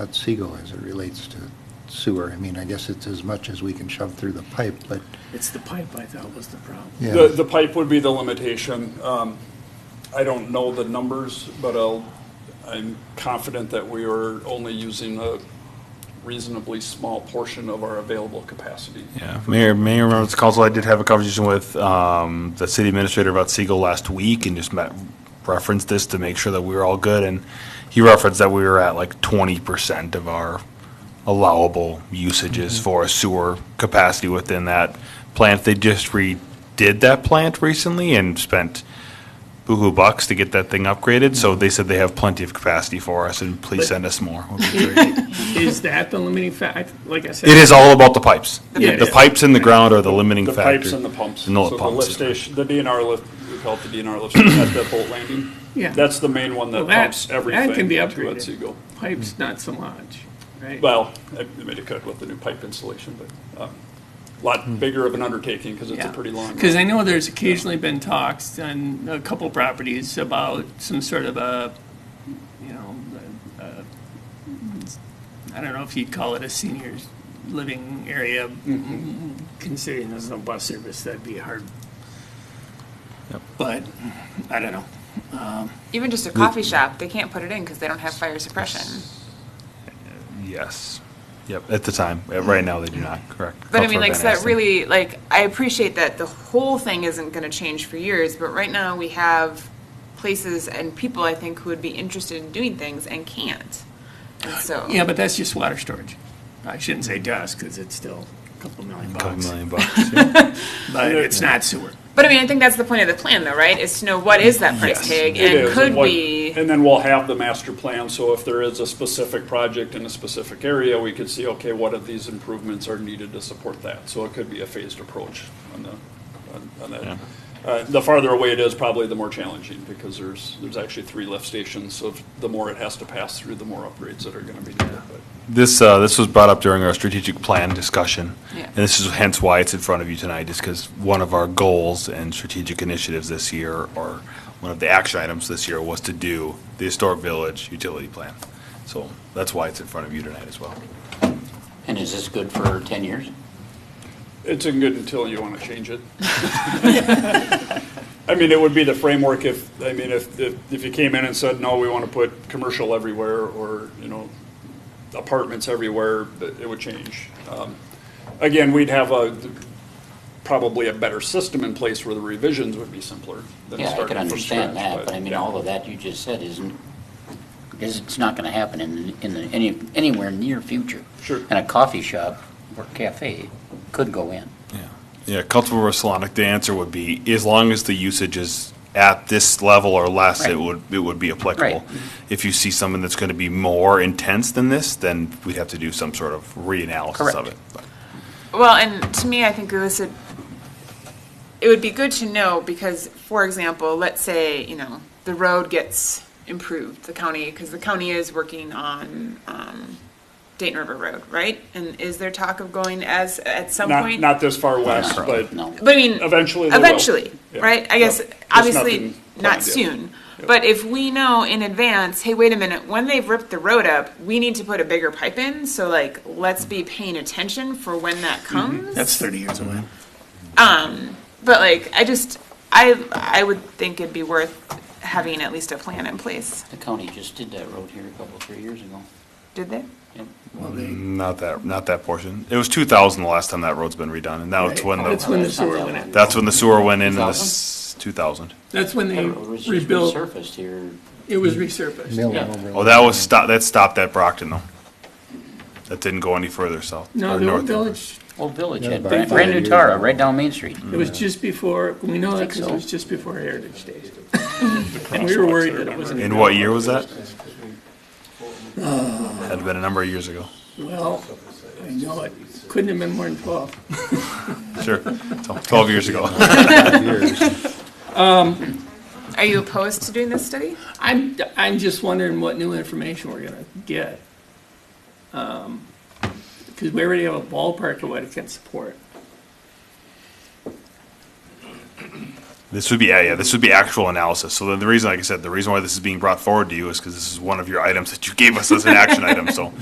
about Segal as it relates to sewer. I mean, I guess it's as much as we can shove through the pipe, but, It's the pipe I thought was the problem. yeah. The, the pipe would be the limitation. Um, I don't know the numbers, but I'll, I'm confident that we are only using a reasonably small portion of our available capacity. Yeah, Mayor, Mayor, members of council, I did have a conversation with um, the city administrator about Siegel last week and just met, referenced this to make sure that we were all good. And he referenced that we were at like twenty percent of our allowable usages Mm-hmm. for a sewer capacity within that plant. They just redid that plant recently and spent boohoo bucks to get that thing upgraded. So Mm-hmm. they said they have plenty of capacity for us and please But- send us more. would be great. Is that the limiting fact? Like I said. It is all about the pipes. Yeah. The pipes in the ground are the limiting The factor. pipes and the pumps. And all So the the pumps. lift station, the DNR lift, we call it the DNR lift station at the boat landing. Yeah. That's the main one that Well, that- pumps that everything. can be to Mm-hmm. upgraded. Otsego. Pipe's not so much, right? Well, I made it cut with the new pipe installation, but, um, a Hmm. lot bigger of an undertaking because it's a pretty long. Because I know there's occasionally been talks on a couple properties about some sort of a, you know, a- a- I don't know if you'd call it a seniors living area, Mm-hmm. considering there's no bus service, that'd be hard. But, I don't know. Even just a coffee shop, they can't put it in because they don't have fire suppression. Yes. Yep. At the time. Uh, Right now, they do not. Correct. But I Councilor mean, like, Van so that Asten. really, like, I appreciate that the whole thing isn't gonna change for years, but right now we have places and people, I think, who would be interested in doing things and can't. And so, Yeah, but that's just water storage. I shouldn't say dust, because it's still a couple million Couple bucks, million bucks. yeah. but it's not sewer. but I mean, I think that's the point of the plan though, right? Is to know what is that price tag It and is, and could what- we? And then we'll have the master plan, so if there is a specific project in a specific area, we could see, okay, what of these improvements are needed to support that? So it could be a phased approach on the, on- on that. Uh, The farther away it is, probably the more challenging, because there's, there's actually three lift stations, so if- the more it has to pass through, the more upgrades that are gonna be needed, but. This uh, this was brought up during our strategic plan discussion, Yeah. and this is hence why it's in front of you tonight. Is because one of our goals and strategic initiatives this year, or one of the action items this year, was to do the historic village utility plan. So that's why it's in front of you tonight as well. And is this good for 10 years? It's in good until you want to change it. I mean, it would be the framework if, I mean, if, if if you came in and said, no, we want to put commercial everywhere or, you know, apartments everywhere, th- it would change. Um, Again, we'd have a, probably a better system in place where the revisions would be simpler than Yeah, I starting can from understand scratch, that, but I mean, yeah. all of that you just said isn't, is, it's not going to happen in, in the, any, anywhere near future. Sure. And a coffee shop or cafe could go in. Yeah, yeah. Councilmember Solonic, the answer would be as long as the usage is at this level or less, it Right. would it would be applicable. Right. If you see something that's going to be more intense than this, then we'd have to do some sort of reanalysis of Correct. it. But Well, and to me, I think this would, it would be good to know because, for example, let's say, you know, the road gets improved, the county, because the county is working on, um, Dayton River Road, right? And is there talk of going as, at some Not, point? not this far west, but No. But I mean. Eventually they will. Eventually, Yeah. right? I guess, Yep. There's obviously, nothing not planned yet. soon. But if we know in advance, hey, wait a minute, when they've ripped the road up, we need to put a bigger pipe in, so like, let's be paying attention for when that comes. That's 30 years away. But like, I just, I, I would think it'd be worth having at least a plan in place. The county just did that road here a couple, three years ago. Did they? Yep. not that not that portion. It was two thousand the last time that road's been redone, and that's when That's the when the sewer went in. that's when the sewer went in. in this two thousand. That's when they That road was just rebuilt, resurfaced here. it was resurfaced. Mill and overlay. Oh, that was stop. That stopped at Brockton though. That didn't go any further south No, or the old north. village, Old Village Yeah, had about brand five brand new years Tara, ago. right down Main Street. it was just before, we know that Think because it so. was just before Heritage Days. And we were worried that it wasn't. In what year was that? Had been a number of years ago. Well, I know it, couldn't have been more than 12. Sure. Tw- Twelve years ago. Are you opposed to doing this study? I'm, I'm just wondering what new information we're gonna get. Because we already have a ballpark of what it can support. This would be, yeah, yeah, this would be actual analysis. So the, the reason, like I said, the reason why this is being brought forward to you is because this is one of your items that you gave us as an action item, so.